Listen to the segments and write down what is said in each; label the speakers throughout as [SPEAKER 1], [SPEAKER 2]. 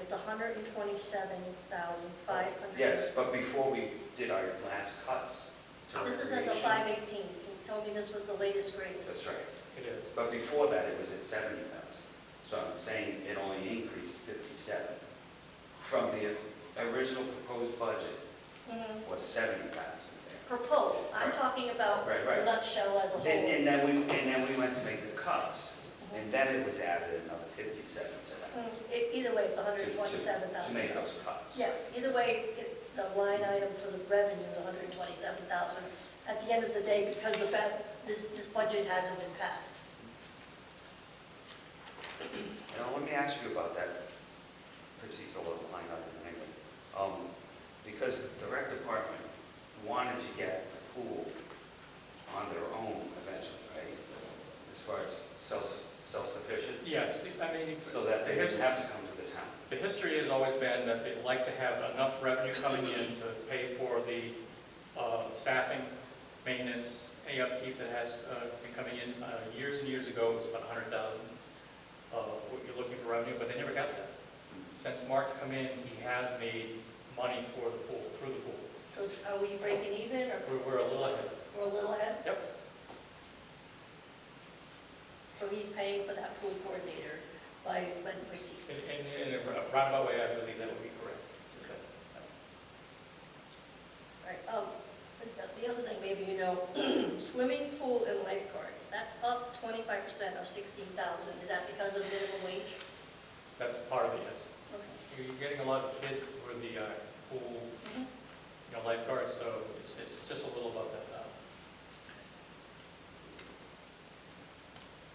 [SPEAKER 1] it's hundred and twenty-seven thousand five hundred.
[SPEAKER 2] Yes, but before we did our last cuts to
[SPEAKER 1] This is as a
[SPEAKER 2] recreation.
[SPEAKER 1] five eighteen, he told me this was the latest raise.
[SPEAKER 2] That's right.
[SPEAKER 3] It is.
[SPEAKER 2] But before that, it was at seventy thousand. So I'm saying it only increased fifty-seven. From the original proposed budget
[SPEAKER 1] Mhm.
[SPEAKER 2] was seventy thousand there.
[SPEAKER 1] Proposed, I'm
[SPEAKER 2] Right.
[SPEAKER 1] talking about
[SPEAKER 2] Right,
[SPEAKER 1] the
[SPEAKER 2] right.
[SPEAKER 1] nutshell as a
[SPEAKER 2] And,
[SPEAKER 1] whole.
[SPEAKER 2] and then we, and then we went to make the cuts, and then it was added another fifty-seven to that.
[SPEAKER 1] Mhm. E- Either way, it's
[SPEAKER 2] to-
[SPEAKER 1] hundred
[SPEAKER 2] to-
[SPEAKER 1] and twenty-seven thousand.
[SPEAKER 2] To make those cuts.
[SPEAKER 1] Yes, either way, it- the line item for the revenue is 127,000 at the end of the day because the, ba- this, this budget hasn't been passed.
[SPEAKER 2] Now, let me ask you about that particular line item anyway. Um, Because the rec department wanted to get the pool on their own eventually, right? As far as self, self-sufficient,
[SPEAKER 3] Yes, I mean, it's-
[SPEAKER 2] so that they didn't have to come to the town.
[SPEAKER 3] the history has always been that they'd like to have enough revenue coming in to pay for the uh, staffing, maintenance, any upkeep that has uh, been coming in. Uh, Years and years ago, it was about 100,000, uh, what you're looking for revenue, but they never got that. Since Mark's come in, he has made money for the pool, through the pool.
[SPEAKER 1] So are we breaking even or
[SPEAKER 3] We're- We're a little ahead.
[SPEAKER 1] we're a little ahead?
[SPEAKER 3] Yep.
[SPEAKER 1] So he's paying for that pool coordinator by, by the receipts.
[SPEAKER 3] In- In in a roundabout way, I believe that would be correct. Just that.
[SPEAKER 1] Right, um, the- the other thing, maybe you know, swimming pool and lifeguards, that's up 25% of 16,000. Is that because of minimum wage?
[SPEAKER 3] That's part of it, yes.
[SPEAKER 1] Okay.
[SPEAKER 3] You're getting a lot of kids for the uh, pool
[SPEAKER 1] Mhm.
[SPEAKER 3] you know, lifeguard, so it's, it's just a little above that uh, now.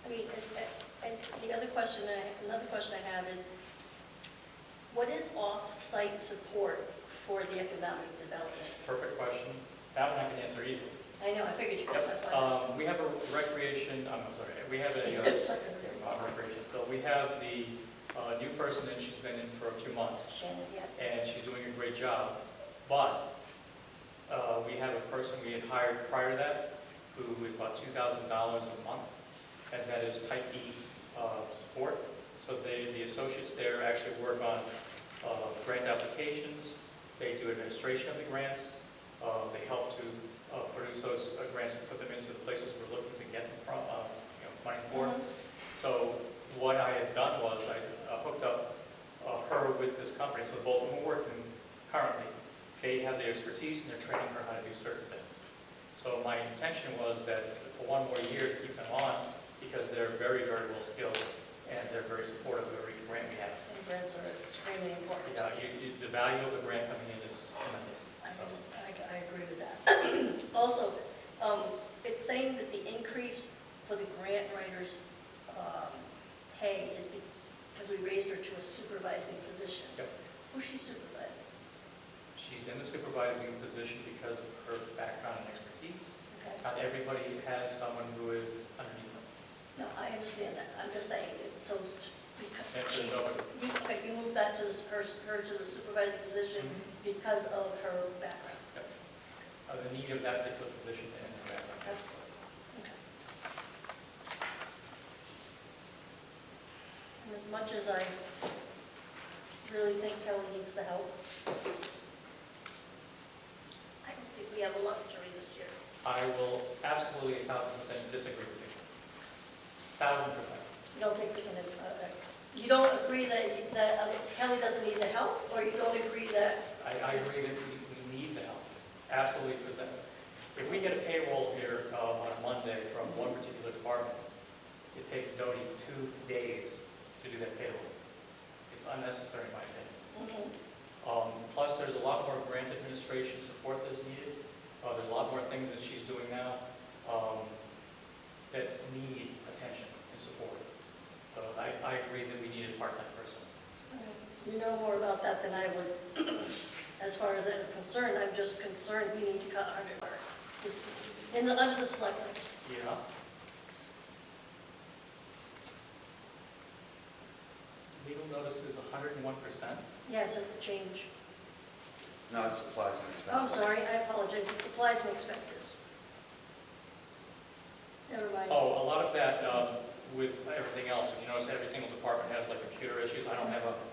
[SPEAKER 1] I mean, and- and and the other question, I- another question I have is, what is off-site support for the economic development?
[SPEAKER 3] Perfect question. That one I can answer easily.
[SPEAKER 1] I know, I figured you would, that's
[SPEAKER 3] Yep.
[SPEAKER 1] why. I
[SPEAKER 3] Um, we have a recreation, I'm sorry, we have a, uh,
[SPEAKER 1] asked.
[SPEAKER 3] yeah, not recreation still, we have the, uh, new person and she's been in for a few months
[SPEAKER 1] Shannon, yeah.
[SPEAKER 3] and she's doing a great job. But, uh, we have a person we had hired prior to that who is about two thousand dollars a month and that is type E, uh, support. So they, the associates there actually work on uh, grant applications, they do administration of the grants, uh, they help to uh, produce those uh, grants and put them into the places we're looking to get them from, uh, you know, monies for. So what I had done was I uh, hooked up uh, her with this company, so both of them are working currently. They have the expertise and they're training her how to do certain things. So my intention was that for one more year, to keep them on because they're very, very well skilled and they're very supportive of every grant we have.
[SPEAKER 1] And grants are extremely important.
[SPEAKER 3] Yeah, you, you, the value of the grant coming in is tremendous,
[SPEAKER 1] I,
[SPEAKER 3] so.
[SPEAKER 1] I I agree with that. Also, um, it's saying that the increase for the grant writers' um, pay is because we raised her to a supervising position.
[SPEAKER 3] Yep.
[SPEAKER 1] Who's she supervising?
[SPEAKER 3] She's in the supervising position because of her background and expertise.
[SPEAKER 1] Okay.
[SPEAKER 3] Not everybody has someone who is underneath them.
[SPEAKER 1] No, I understand that, I'm just saying, it- so, because
[SPEAKER 3] That's
[SPEAKER 1] she,
[SPEAKER 3] a double.
[SPEAKER 1] you, okay, you moved that to her, her to the supervising position
[SPEAKER 3] Mm-hmm.
[SPEAKER 1] because of her background.
[SPEAKER 3] Uh, The need of that particular position and her background.
[SPEAKER 1] Okay. And as much as I really think Kelly needs the help, I don't think we have a luxury this year.
[SPEAKER 3] I will absolutely a thousand percent disagree with you. Thousand percent.
[SPEAKER 1] You don't think we can, uh, uh, you don't agree that, you- that uh, Kelly doesn't need the help, or you don't agree that
[SPEAKER 3] I, I agree that we, we need the help, absolutely present. If we get a payroll here uh, on Monday from one particular department, it takes Doty two days to do that payroll. It's unnecessary, in my
[SPEAKER 1] Mhm.
[SPEAKER 3] opinion. Um, Plus, there's a lot more grant administration support that's needed. Uh, There's a lot more things that she's doing now um, that need attention and support. So I, I agree that we need a part-time person.
[SPEAKER 1] You know more about that than I would. As far as that is concerned, I'm just concerned we need to cut underwear. It's in the, under the selectmen.
[SPEAKER 3] Yeah. Legal notice is 101%.
[SPEAKER 1] Yes, it's a change.
[SPEAKER 2] No, it's supplies and
[SPEAKER 1] Oh, I'm
[SPEAKER 2] expenses.
[SPEAKER 1] sorry, I apologize, it's supplies and expenses. Never mind.
[SPEAKER 3] Oh, a lot of that um, with everything else, if you notice, every single department has like computer issues. I don't have a